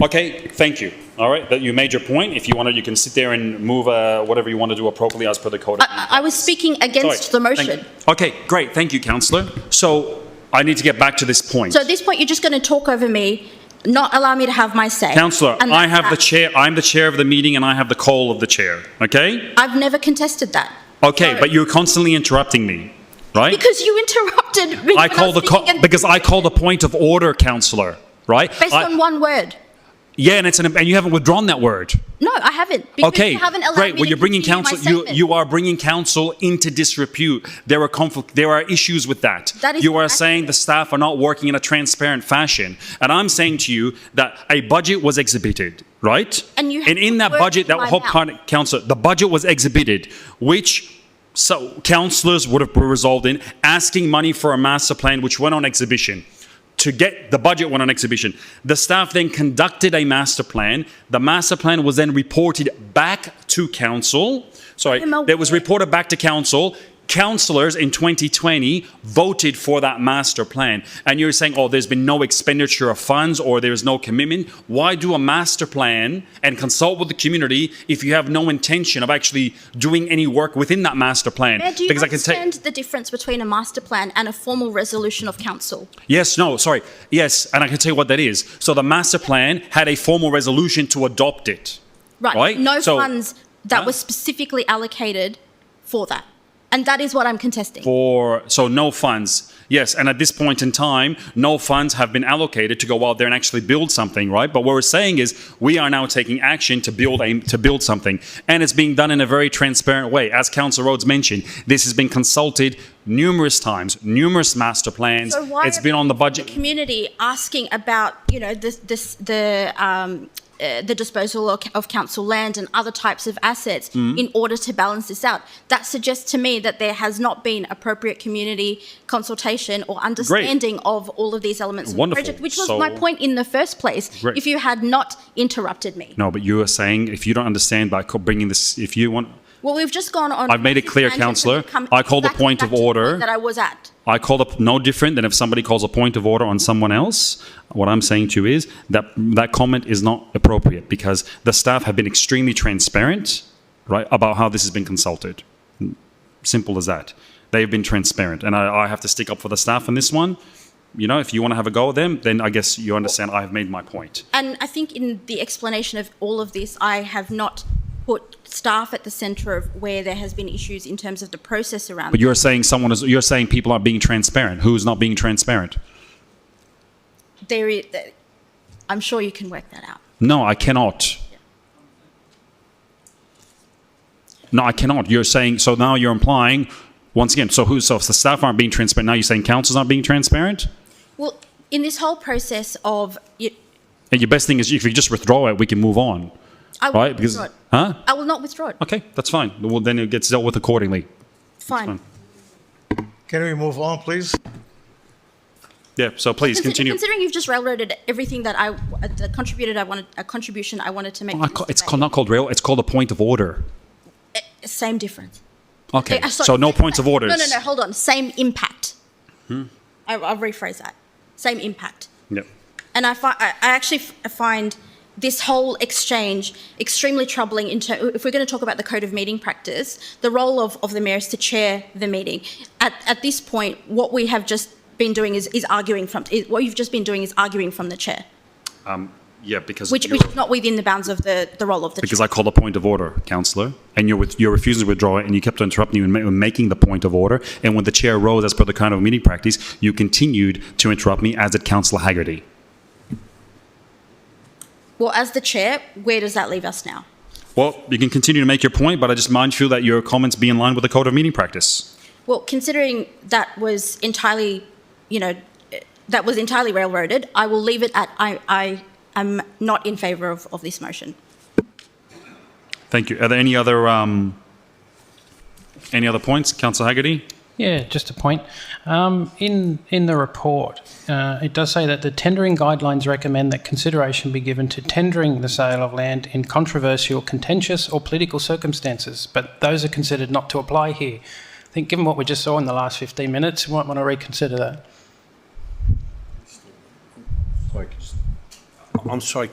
Okay, thank you. All right, that you made your point. If you wanted, you can sit there and move uh, whatever you want to do appropriately as per the code. of I, I I was speaking against the Sorry. Thank- motion. Okay, great, thank you, councillor. So I need to get back to this point. So at this point, you're just going to talk over me, not allow me to have my say. Councillor, And I that's have the that. chair, I'm the chair of the meeting and I have the call of the chair, okay? I've never contested that. Okay, Sorry. but you're constantly interrupting me, right? Because you interrupted me. I when call was the, co- speaking and- because I call the point of order, councillor, right? Based I- on one word. Yeah, and it's, an- and you haven't withdrawn that word. No, I haven't. Because Okay, you haven't allowed great. me Well, to you're bringing continue my council. You statement. you are bringing council into disrepute. There are conflict. There are issues with that. That is you are inaccurate. saying the staff are not working in a transparent fashion, and I'm saying to you that a budget was exhibited, right? And you and in that have budget, that words in my whole mouth. part, council, the budget was exhibited, which. So councillors would have resolved in asking money for a master plan which went on exhibition to get the budget went on exhibition. The staff then conducted a master plan. The master plan was then reported back to council. Sorry, I'm aware. that was reported back to council. Councillors in 2020 voted for that master plan. And you're saying, oh, there's been no expenditure of funds or there's no commitment. Why do a master plan and consult with the community if you have no intention of actually doing any work within that master plan? Mayor, do you Because I can tell- understand the difference between a master plan and a formal resolution of council? Yes, no, sorry. Yes, and I can tell you what that is. So the master plan had a formal resolution to adopt it. Right. Right? No So- funds that Huh? were specifically allocated for that. And that is what I'm contesting. For so no funds. Yes, and at this point in time, no funds have been allocated to go out there and actually build something, right? But what we're saying is we are now taking action to build a, to build something, and it's being done in a very transparent way. As Council Rhodes mentioned, this has been consulted numerous times, numerous master plans. So why it's are been on the budget. community asking about you know this this the um, uh, the disposal of, of council land and other types of assets Mm. in order to balance this out. That suggests to me that there has not been appropriate community consultation or understanding of all of these elements of the Wonderful. project, which was my So- point in the first place. Great. If you had not interrupted me, No, but you are saying if you don't understand by co- bringing this, if you want. well, we've just gone on. I've made it clear, tangents and councillor. we've come I call the back- back point to of the point order. that I was at. I call up no different than if somebody calls a point of order on someone else. What I'm saying to you is that that comment is not appropriate because the staff have been extremely transparent, right, about how this has been consulted. Simple as that. They've been transparent, and I, I have to stick up for the staff on this one. You know, if you want to have a go at them, then I guess you understand I have made my point. And I think in the explanation of all of this, I have not put staff at the centre of where there has been issues in terms of the process around. But you're saying someone is. You're saying people aren't being transparent. Who's not being transparent? there, is, I'm sure you can work that out. No, I cannot. No, I cannot. You're saying, so now you're implying, once again, so who, so if the staff aren't being transparent, now you're saying council's not being transparent? Well, in this whole process of, you- And your best thing is if you just withdraw it, we can move on, I will right? not Because, withdraw it. huh? I will not withdraw it. Okay, that's fine. Well, then it gets dealt with accordingly. Fine. Can we move on, please? Yeah, so please Consi- continue. Considering you've just railroaded everything that I, uh, that contributed, I wanted, a contribution I wanted to make. Oh, I ca- It's ca- not called rail, it's called a point of order. Same difference. Okay, Uh, sorry. so no points of orders. Hmm? No, no, no, hold on. Same impact. I, I'll rephrase that. Same impact. Yep. and I, fi- I I actually f- find this whole exchange extremely troubling. In ter- if we're going to talk about the code of meeting practice, the role of, of the mayor is to chair the meeting. At, at this point, what we have just been doing is, is arguing from is, what you've just been doing is arguing from the chair, Yeah, because. which, you're- which is not within the bounds of the, the role of the Because chair. I called a point of order, councillor, and you're, with, you're refusing to withdraw it, and you kept on interrupting me and ma- making the point of order. And when the chair rose, as per the kind of meeting practice, you continued to interrupt me, as did councillor Haggerty. well, as the chair, where does that leave us now? Well, you can continue to make your point, but I just mindful that your comments be in line with the code of meeting practice. Well, considering that was entirely, you know, eh, that was entirely railroaded, I will leave it at I, I am not in favour of, of this motion. Thank you. Are there any other um, any other points, councillor Haggerty? Yeah, just a point. Um, in in the report, uh, it does say that the tendering guidelines recommend that consideration be given to tendering the sale of land in controversial, contentious, or political circumstances, but those are considered not to apply here. I think, given what we just saw in the last 15 minutes, we might want to reconsider that. I'm sorry,